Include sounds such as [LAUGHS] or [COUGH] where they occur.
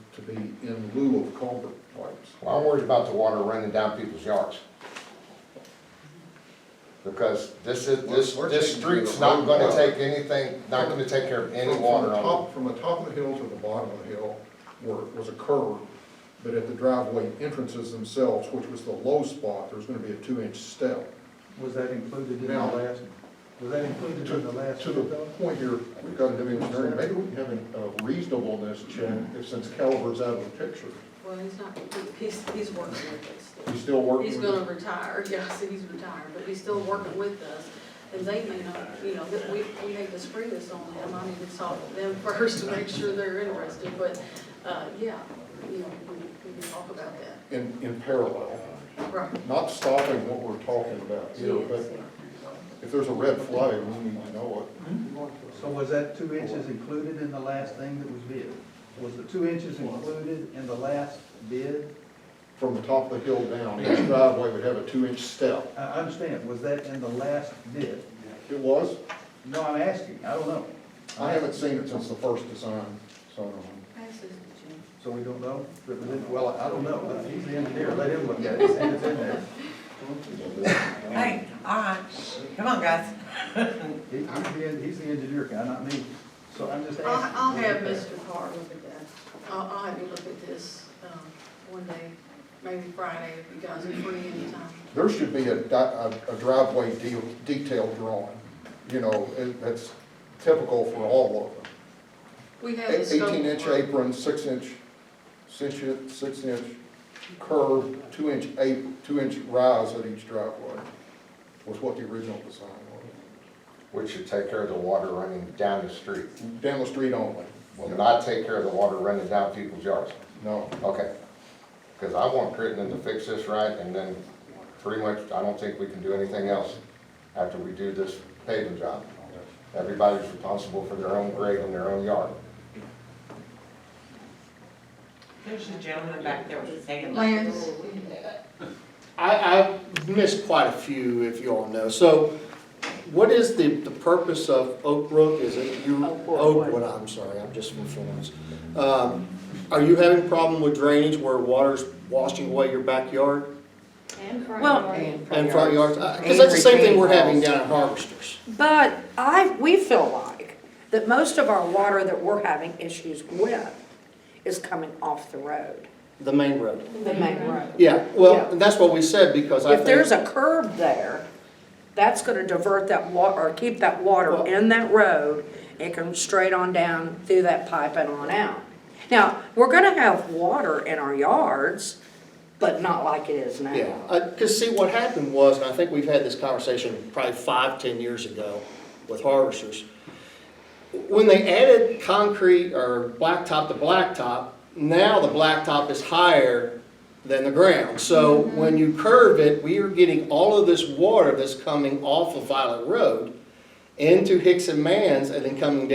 to be in lieu of culvert pipes. Well, I'm worried about the water running down people's yards. Because this is, this, We're- we're this taking care of street's not gonna water. take anything, not gonna take care of any From- water From the on top, from the top of the hill to the bottom of the hill were, was a curve, but at the driveway entrances themselves, which was the low spot, there was gonna be a two-inch step. Was that included in the Now- last, was that included in the last? To the bid, though? point here, we've got to do engineering, maybe we can have a reasonableness check, if since Caliver's out of the picture, Well, he's not, he's, he's working with us. he's still working. He's with gonna retire, yes, he's retired, but he's still working with us. And they may not, you know, that we, we hate to spring this on them, I need to talk to them [LAUGHS] first to make sure they're interested, but, uh, yeah, you know, we, we can talk about that. In, in parallel, Right. not stopping what we're talking about here, but if there's a red flag, we need to know So was that two inches included in the last thing that was bid? Was the two inches included in the last bid? it. From the top of the hill down, each driveway would have a two-inch step. I, I understand, was that in the last bid? It was, No, I'm asking, I don't know. I haven't seen it since the first design, so. um, So we don't know? But we didn't- Well, I don't know, but he's the engineer, let him look at it, see if it's in there. Hey, all right, come on, guys. He- He's the, he's the engineer guy, not me, so I'm just asking. I'll, I'll have Mr. Carr look at that. I'll, I'll have you look at this, um, one day, maybe Friday, if you guys are free anytime. There should be a di- a a driveway de- detail drawing, you know, it- that's typical for all of them. We have the scope. of Eighteen inch work. apron, six inch, six inch, six inch curve, two inch ap, two inch rise at each driveway was what the original design was. it, which should take care of the water running down the street. Down the street only, Will not take care of the water running down people's yards. no. Okay. Because I want Crittenden to fix this right, and then pretty much, I don't think we can do anything else after we do this paving job. Everybody's responsible for their own grade and their own yard. There's a gentleman back there with his hand. up. Lance, I, I missed quite a few, if you all know. So what is the, the purpose of Oak Brook? Is it you, Oakwood. Oakwood, I'm sorry, I'm just from Florence. Um, Are you having a problem with drainage where water's washing away your backyard Well, and front yards? Because that's the same thing we're having down at Harvesters. but I, we feel like that most of our water that we're having issues with is coming off the road, The main road. the main road. Yeah, Yeah. well, and that's what we said because I If think. there's a curb there, that's gonna divert that wa, or keep that water Well- in that road, it can straight on down through that pipe and on out. Now, we're gonna have water in our yards, but not like it is now. Yeah, because see, what happened was, and I think we've had this conversation probably five, ten years ago with harvesters. When they added concrete or blacktop to blacktop, now the blacktop is higher than the ground. So when you curve it, we are getting all of this water that's coming off of Violet Road into Hicks and Mans and then coming down.